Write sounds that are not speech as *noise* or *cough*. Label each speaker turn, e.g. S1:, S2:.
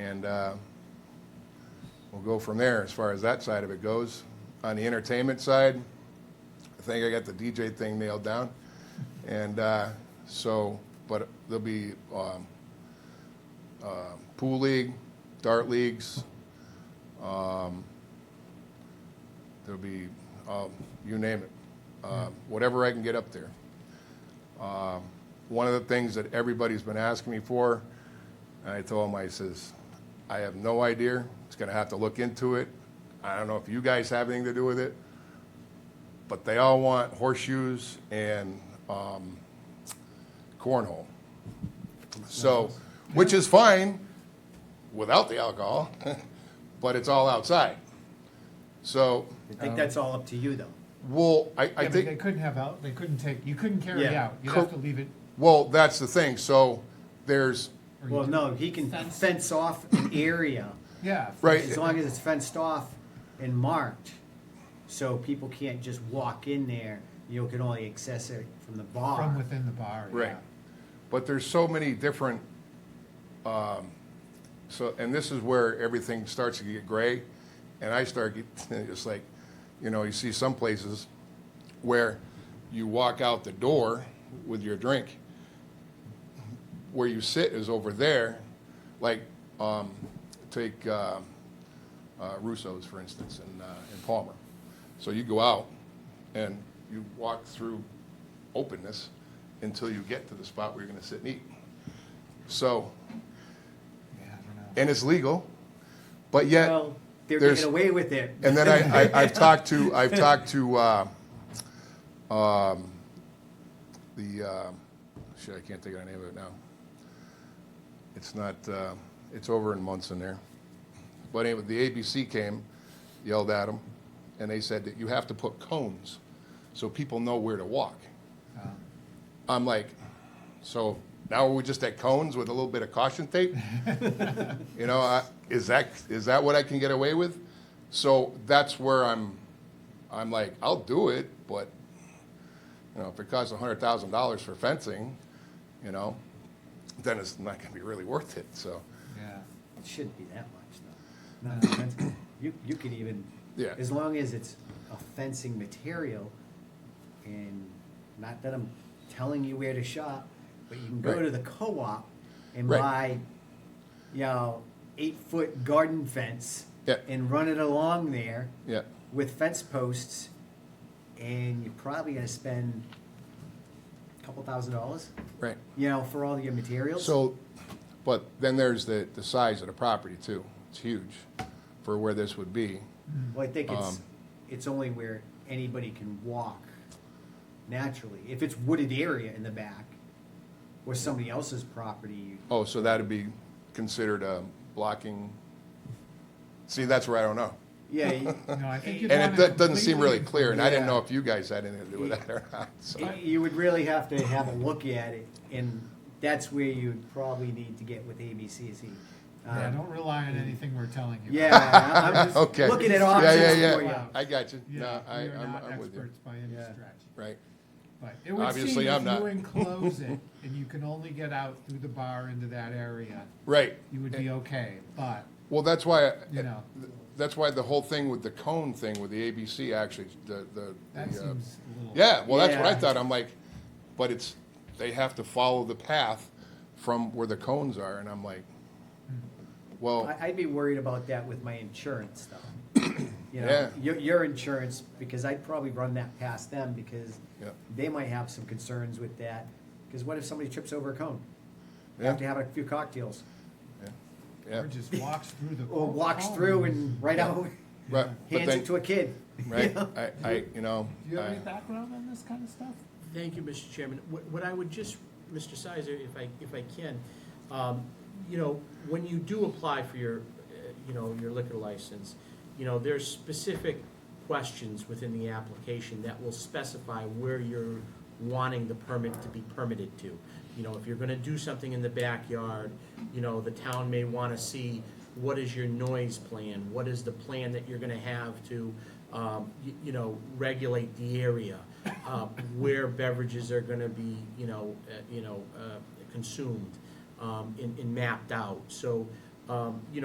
S1: And uh, we'll go from there as far as that side of it goes. On the entertainment side, I think I got the DJ thing nailed down. And uh, so, but there'll be um, uh, pool league, dart leagues. um, There'll be, um, you name it, uh, whatever I can get up there. Um, One of the things that everybody's been asking me for, and I told him, I says, I have no idea. It's gonna have to look into it. I don't know if you guys have anything to do with it. But they all want horseshoes and, um, cornhole. So, which is fine without the alcohol, *laughs* but it's all outside. So,
S2: I think that's all up to you, though.
S1: well, I, I
S3: Yeah, but they
S1: think,
S3: couldn't have out, they couldn't take, you couldn't carry it
S2: Yeah.
S3: out. You'd have
S1: Cor-
S3: to leave it.
S1: well, that's the thing. So there's,
S3: or you
S2: Well,
S3: could-
S2: no, he can
S4: Fence.
S2: fence off an area,
S3: Yeah.
S1: Right.
S2: as long as it's fenced off and marked, so people can't just walk in there. You can only access it from the
S3: From
S2: bar.
S3: within the bar, yeah.
S1: Right. But there's so many different, um, so, and this is where everything starts to get gray, and I start get, *laughs* it's like, you know, you see some places where you walk out the door with your drink. Where you sit is over there, like, um, take, um, uh, Russo's, for instance, in, uh, in Palmer. So you go out and you walk through openness until you get to the spot where you're gonna sit and eat. So,
S3: Yeah, I don't know.
S1: and it's legal, but yet,
S2: Well, they're
S1: There's-
S2: getting away with it.
S1: and
S2: *laughs*
S1: then I, I, I've talked to, I've talked to, uh, um, the, um, shit, I can't think of the name of it now. It's not, uh, it's over in Munson there. But anyway, the ABC came, yelled at them, and they said that you have to put cones so people know where to walk. I'm like, so now we're just at cones with a little bit of caution tape? You know, I- is that, is that what I can get away with? So that's where I'm, I'm like, I'll do it, but, you know, if it costs a hundred thousand dollars for fencing, you know, then it's not gonna be really worth it, so.
S3: Yeah.
S2: It shouldn't be that much, though. No, that's- You, you can even,
S1: Yeah.
S2: as long as it's a fencing material, and not that I'm telling you where to shop, but you can go
S1: Right.
S2: to the co-op and
S1: Right.
S2: buy, you know, eight-foot garden fence.
S1: Yeah.
S2: And run it along there
S1: Yeah,
S2: with fence posts, and you're probably gonna spend a couple thousand dollars,
S1: right.
S2: you know, for all your materials.
S1: So, but then there's the, the size of the property too. It's huge for where this would be.
S2: Well, I think it's,
S1: Um,
S2: it's only where anybody can walk naturally. If it's wooded area in the back, or somebody else's property,
S1: Oh, so that'd be considered a blocking? See, that's where I don't know.
S2: yeah, you-
S3: *laughs* No, I think you'd
S1: And
S3: want
S1: it do- doesn't seem really
S3: completely-
S1: clear, and I didn't know
S2: Yeah.
S1: if you guys had anything to do with that or not, so.
S2: you- you would really have to have a look at it, and that's where you'd probably need to get with ABCC. Um,
S3: Yeah, don't rely on anything we're telling you.
S2: Yeah, I'm
S3: *laughs*
S2: I'm just
S1: Okay.
S2: looking at
S1: Yeah,
S2: options
S1: yeah,
S2: for you.
S1: yeah. I got you.
S3: Yeah,
S1: No, I,
S3: we are
S1: I'm,
S3: not
S1: I'm with you.
S3: experts by any
S2: Yeah.
S3: stretch.
S1: Right.
S3: But it would
S1: Obviously,
S3: seem
S1: I'm
S3: if
S1: not. *laughs*
S3: you enclose it and you can only get out through the bar into that area,
S1: Right.
S3: you would be okay, but,
S1: Well, that's why, I-
S3: you know,
S1: that's why the whole thing with the cone thing with the ABC actually, the, the.
S3: that
S1: the, uh,
S3: seems a little.
S1: Yeah, well, that's what I
S2: Yeah.
S1: thought. I'm like, but it's, they have to follow the path from where the cones are, and I'm like, well,
S2: I- I'd be worried about that with my insurance, though. You know,
S1: Yeah.
S2: your, your insurance, because I'd probably run that past them, because
S1: Yep.
S2: they might have some concerns with that. Because what if somebody trips over a cone? They
S1: yeah,
S2: Have to have a few cocktails,
S1: yeah,
S3: Or just walks through the.
S2: or walks
S3: hall.
S2: through and right out,
S1: right. But
S2: hands it
S1: then,
S2: to a kid.
S1: right, I, I, you know.
S3: Do you have
S1: I-
S3: any background on this kind of stuff?
S4: Thank you, Mr. Chairman. What what I would just, Mr. Sizer, if I, if I can, um, you know, when you do apply for your, uh, you know, your liquor license, you know, there's specific questions within the application that will specify where you're wanting the permit to be permitted to. You know, if you're gonna do something in the backyard, you know, the town may wanna see what is your noise plan? What is the plan that you're gonna have to, um, you, you know, regulate the area? Uh, where beverages are gonna be, you know, uh, you know, uh, consumed, um, and, and mapped out. So, um, you